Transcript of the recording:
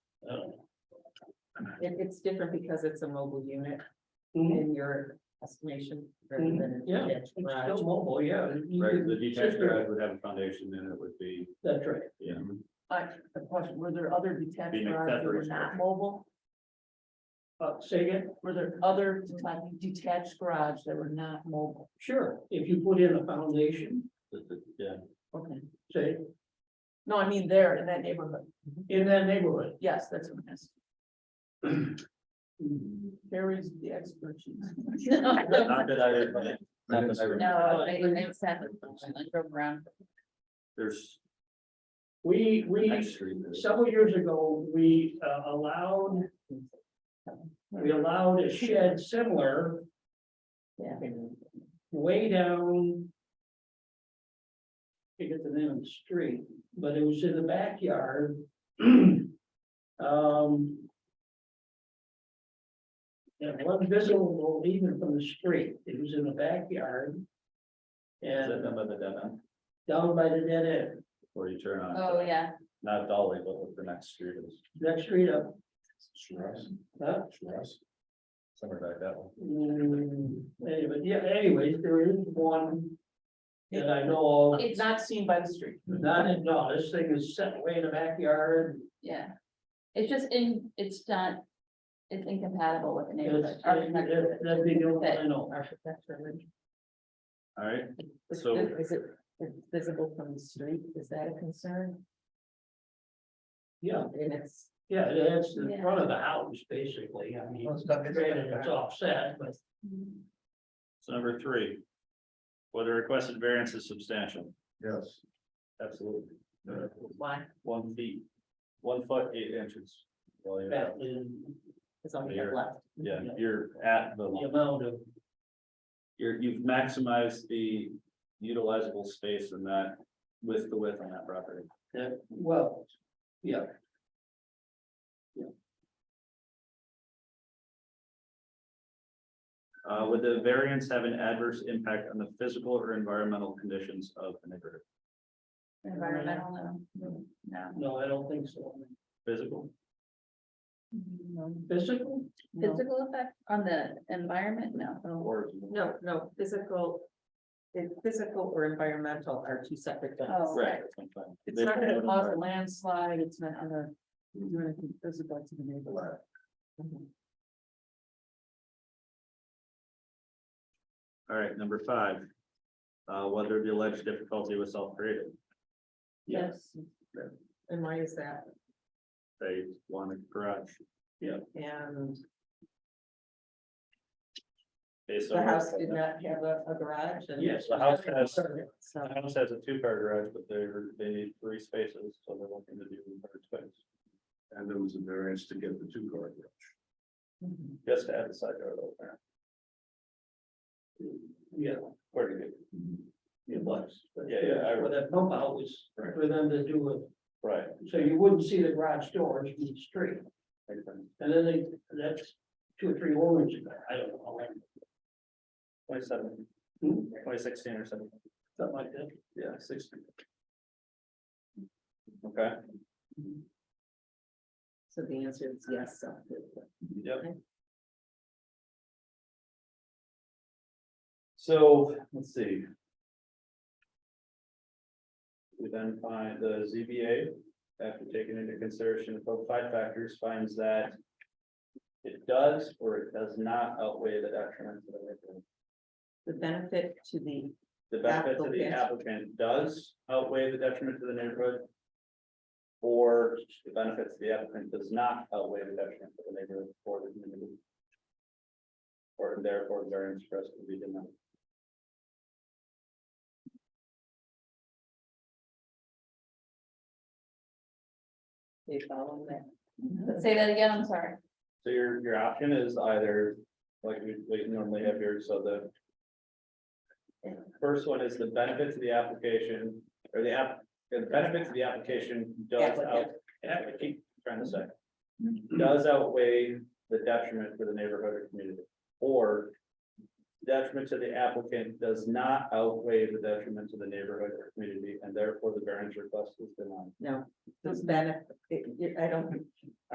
It, it's different because it's a mobile unit Mhm. in your estimation rather Mhm. than a Yeah, detached It's garage. still mobile, yeah. You Right, could- the detached sister- garage would have a foundation, then it would be, That's right. yeah. I, a question, were there other detached Being garages that were accessories. not mobile? Uh, say again, Were there other deta- detached garage that were not mobile? sure, if you put in a foundation, Yeah, Okay, say, no, I mean there in that neighborhood. in that neighborhood. Yes, that's what I'm asking. There is the expertise. not that I, not that I, remember. No, I, Uh, it's happened. I drove around. there's. We, we, actually, there's- several years ago, we uh, allowed. We allowed a shed similar. Yeah. Way down. Forget the name of the street, but it was in the backyard. Um. It wasn't visible even from the street, it was in the backyard. Is that And number the dead end, down by the dead end, where you turn on? Oh, yeah. Not Dolly, but what the next street is. next street up, Shiraz, huh? Shiraz. Somewhere like that one. Mm, anyway, yeah, anyways, there is one. That I know of, It's not seen by the street. not in, no, this thing is set way in the backyard, Yeah. It's just in, it's not, it's incompatible with the it's, neighborhood. it- it- that'd be the only one I know. Architecture. All right, Is So- it- is it visible from the street? Is that a concern? Yeah, And it's, yeah, that's the Yeah. front of the house, basically, I mean, granted, it's offset, but so number three. Whether requested variance is substantial, Yes. absolutely. why? One feet, one foot, eight inches. Well, you're that at- is It's all we have left. Yeah, you're at the, the amount of, you're, you've maximized the utilizable space in that with the width on that property. that well, yeah. Uh, would the variance have an adverse impact on the physical or environmental conditions of the neighborhood? Environmental, no, no. No, I don't think so. Physical? Physical, Physical effect on the environment, no. Or No, no, physical, it- physical or environmental are two separate things. Right. It's not gonna cause a landslide, it's not gonna do anything physical to the neighborhood. All right, number five. Uh, whether the alleged difficulty was self-created, yes, And why is that? they wanted garage And based on. the house did not have a, a garage and. yes. The house has, So, the house has a two-car garage, but they're, they need three spaces, so they're looking to do third space. And there was a variance to get the two car garage. Just to add the side yard over. Yeah, Where to get, it was, but Yeah, yeah, I- Well, that pump out was Right. for them to do it. right. So you wouldn't see the garage doors from the street, makes sense. and then they, that's two or three orange, I don't know, how long, Twenty-seven, Hmm? twenty sixteen or seventeen. something like that. Yeah, sixteen. Okay, so the answer is yes. so. yep. So, let's see. We then find the ZBA, after taking into consideration both five factors, finds that. It does or it does not outweigh the detriment to the neighborhood. The benefit to the, The benefit to the Applicant. applicant does outweigh the detriment to the neighborhood. Or the benefit to the applicant does not outweigh the detriment to the neighborhood or the community. Or therefore variance for us to be denied. they follow that. Say that again, I'm sorry. So your, your option is either, like we, we normally have here, so the. First one is the benefit to the application, or the app, the benefit to the application does out, Applicant. I keep trying to say. Does outweigh the detriment for the neighborhood or community, or. Detriment to the applicant does not outweigh the detriment to the neighborhood or community, and therefore the variance request is denied. No, the benefit, I don't